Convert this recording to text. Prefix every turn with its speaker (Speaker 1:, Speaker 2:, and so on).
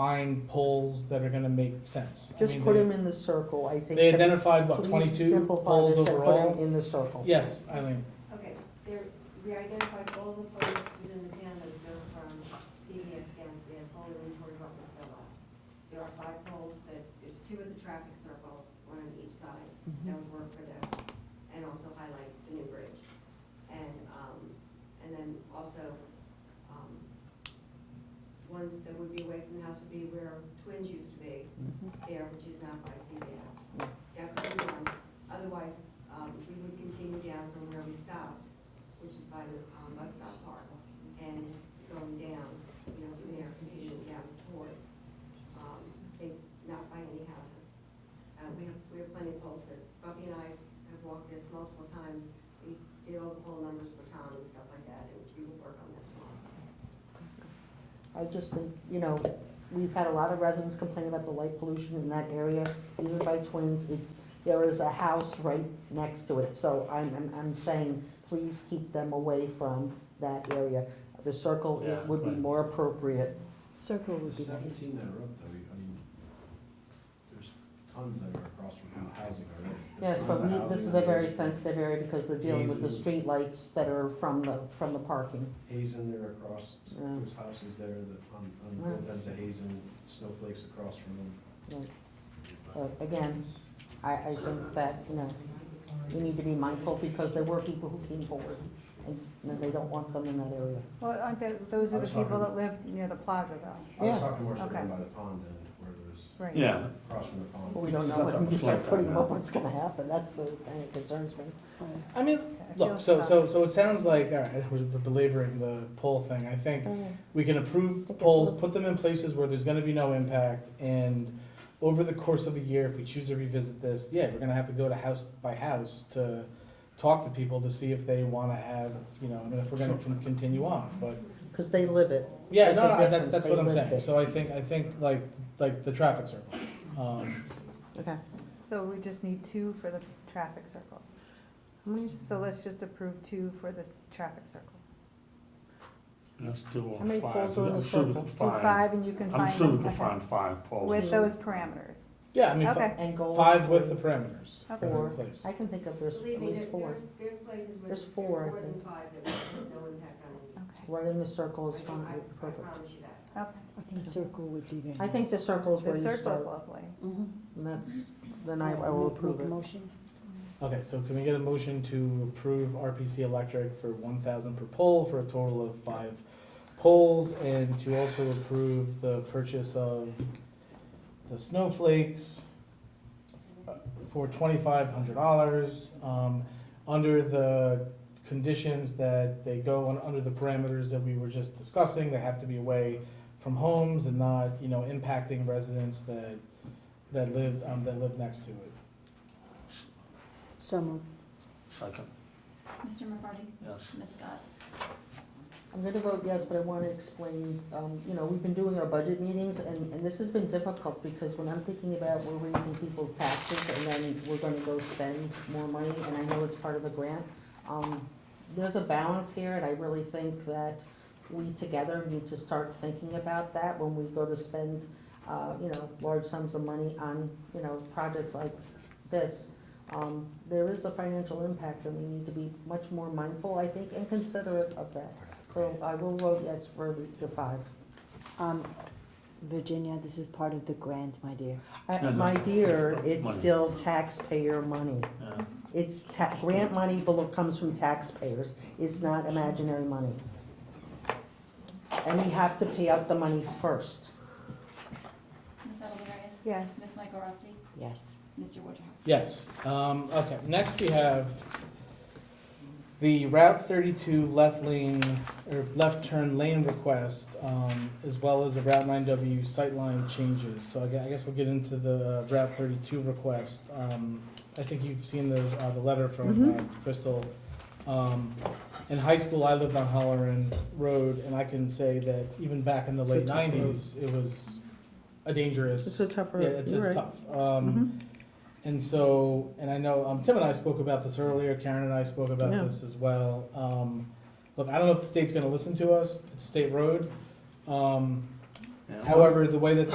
Speaker 1: find poles that are gonna make sense. I
Speaker 2: Just
Speaker 1: mean,
Speaker 2: put
Speaker 1: they-
Speaker 2: them in the circle, I think.
Speaker 1: They
Speaker 2: that-
Speaker 1: identified, what,
Speaker 2: please
Speaker 1: twenty-two
Speaker 2: simplify
Speaker 1: poles
Speaker 2: this and Put them
Speaker 1: overall?
Speaker 2: in the circle.
Speaker 1: Yes, Eileen,
Speaker 3: Okay, there, we identified all the poles within the town that go from CVS down to the whole inventory of what was still left. There are five poles that, there's two in the traffic circle, one on each side, that would work for them, and also highlight the new bridge. And, um, and then also, um, ones that would be away from the house would be where Twins used to be, there, which is now by CVS. That could be one, otherwise, um, we would continue down from where we stopped, which is by the, um, bus stop park, and going down, you know, from there, continuing down towards, um, things, not by any houses. Uh, we have, we have plenty of poles, that Bubby and I have walked this multiple times, we did all the pole numbers for Tom and stuff like that, and we will work on that tomorrow.
Speaker 2: I just think, you know, we've had a lot of residents complain about the light pollution in that area, even by twins, it's, there is a house right next to it, so I'm, I'm, I'm saying, please keep them away from that area. The circle,
Speaker 4: Yeah,
Speaker 2: it would be
Speaker 4: right.
Speaker 2: more appropriate.
Speaker 5: Circle
Speaker 4: The
Speaker 5: would be nice.
Speaker 4: seventeen that are up though, I mean, there's tons that are across from housing already. There's
Speaker 2: Yes, but
Speaker 4: tons
Speaker 2: we,
Speaker 4: of
Speaker 2: this
Speaker 4: housing
Speaker 2: is a
Speaker 4: on
Speaker 2: very
Speaker 4: Hazen.
Speaker 2: sensitive area because they're dealing with the streetlights that are from the, from the parking.
Speaker 4: Hazen, they're across,
Speaker 2: Yeah.
Speaker 4: there's houses there that, um, on, on both ends of Hazen, snowflakes across from them.
Speaker 2: Uh, Again, I, I think that, you know, we need to be mindful because there were people who came forward and they don't want them in that area.
Speaker 6: Well, aren't they, those
Speaker 4: I
Speaker 6: are the
Speaker 4: was
Speaker 6: people
Speaker 4: talking-
Speaker 6: that live near the plaza though,
Speaker 4: I was
Speaker 2: Yeah.
Speaker 4: talking more so down
Speaker 6: Okay.
Speaker 4: by the pond and where there's,
Speaker 6: right?
Speaker 7: Yeah,
Speaker 4: across from the pond.
Speaker 2: But we don't know when you start putting them up, what's gonna happen, that's the thing that concerns me.
Speaker 1: I mean,
Speaker 6: I feel
Speaker 1: look, so,
Speaker 6: stuck.
Speaker 1: so, so it sounds like, all right, we're belaboring the pole thing, I think we can approve
Speaker 2: Think it's
Speaker 1: poles,
Speaker 2: a-
Speaker 1: put them in places where there's gonna be no impact, and over the course of a year, if we choose to revisit this, yeah, we're gonna have to go to house by house to talk to people to see if they wanna have, you know, I mean, if we're gonna con- continue on, but
Speaker 2: Cause they live it.
Speaker 1: Yeah,
Speaker 2: There's
Speaker 1: no,
Speaker 2: a
Speaker 1: no, I- that,
Speaker 2: difference.
Speaker 1: that's
Speaker 2: They
Speaker 1: what I'm
Speaker 2: live
Speaker 1: saying,
Speaker 2: this.
Speaker 1: so I think, I think like, like the traffic circle, um,
Speaker 2: Okay.
Speaker 6: So we just need two for the traffic circle. So let's just approve two for the traffic circle.
Speaker 7: let's do
Speaker 2: How many
Speaker 7: a
Speaker 2: poles
Speaker 7: five,
Speaker 2: are in the
Speaker 7: I'm sure
Speaker 2: circle?
Speaker 7: we can
Speaker 2: Do
Speaker 6: Do
Speaker 7: find,
Speaker 6: five and you can find.
Speaker 7: I'm sure we can
Speaker 6: okay.
Speaker 7: find five poles.
Speaker 6: With those parameters.
Speaker 1: yeah, I mean, fi-
Speaker 6: Okay.
Speaker 2: And goals.
Speaker 1: five with the
Speaker 2: were-
Speaker 1: parameters. that are in
Speaker 2: Four.
Speaker 1: place.
Speaker 2: I can think of there's at
Speaker 3: Believe me, there-
Speaker 2: least four.
Speaker 3: there's, there's places where
Speaker 2: There's
Speaker 3: there's
Speaker 2: four, I
Speaker 3: more than
Speaker 2: think.
Speaker 3: five that have no impact on it.
Speaker 6: Okay,
Speaker 2: Right in the circle is
Speaker 3: I-
Speaker 2: fine,
Speaker 3: I- I
Speaker 2: perfect.
Speaker 3: promise you that.
Speaker 6: okay.
Speaker 5: I think circle would be very nice.
Speaker 2: I think the circle is where
Speaker 6: The
Speaker 2: you
Speaker 6: circle is
Speaker 2: start,
Speaker 6: lovely.
Speaker 5: Mhm.
Speaker 2: and that's, then I, I will
Speaker 5: Make-
Speaker 2: approve
Speaker 5: Make a
Speaker 2: it.
Speaker 5: motion.
Speaker 1: Okay, so can we get a motion to approve RPC Electric for one thousand per pole for a total of five poles? And to also approve the purchase of the snowflakes uh, for twenty-five hundred dollars, um, under the conditions that they go on, under the parameters that we were just discussing, they have to be away from homes and not, you know, impacting residents that, that live, um, that live next to it.
Speaker 5: So moved.
Speaker 7: Second,
Speaker 8: Mr. McCarty?
Speaker 7: yes.
Speaker 8: Ms. Scott?
Speaker 2: I'm gonna vote yes, but I wanna explain, um, you know, we've been doing our budget meetings, and, and this has been difficult, because when I'm thinking about we're raising people's taxes, and then we're gonna go spend more money, and I know it's part of the grant, um, there's a balance here, and I really think that we together need to start thinking about that when we go to spend, uh, you know, large sums of money on, you know, projects like this. Um, there is a financial impact, and we need to be much more mindful, I think, and considerate of that. So I will vote yes for the- the five.
Speaker 5: Um, Virginia, this is part of the grant, my dear.
Speaker 2: I-
Speaker 7: No, no.
Speaker 2: My dear, it's
Speaker 7: Money.
Speaker 2: still taxpayer money.
Speaker 7: Yeah.
Speaker 2: It's ta, grant money belo- comes from taxpayers. It's not imaginary money. And we have to pay out the money first.
Speaker 8: Ms. Edelarius? Ms.
Speaker 6: Yes.
Speaker 8: Mike Rotzi?
Speaker 5: Yes.
Speaker 8: Mr. Wojciechowski?
Speaker 1: Yes, um, okay, next we have the Route thirty-two left lane, or left turn lane request, um, as well as the Route nine W sightline changes. So I gue- I guess we'll get into the Route thirty-two request. Um, I think you've seen the, uh, the letter from
Speaker 2: Mm-hmm.
Speaker 1: uh, Crystal. Um, in high school, I lived on Holloran Road, and I can say that even back in the
Speaker 2: It's a
Speaker 1: late
Speaker 2: tough road.
Speaker 1: nineties, it was a dangerous.
Speaker 2: It's a tough road.
Speaker 1: Yeah, it's,
Speaker 2: You're
Speaker 1: it's
Speaker 2: right. Mm-hmm.
Speaker 1: tough. Um, and so, and I know, um, Tim and I spoke about this earlier, Karen and I spoke about
Speaker 2: Yeah.
Speaker 1: this as well. Um, look, I don't know if the state's gonna listen to us, it's a state road. Um,
Speaker 7: Yeah.
Speaker 1: However, the way that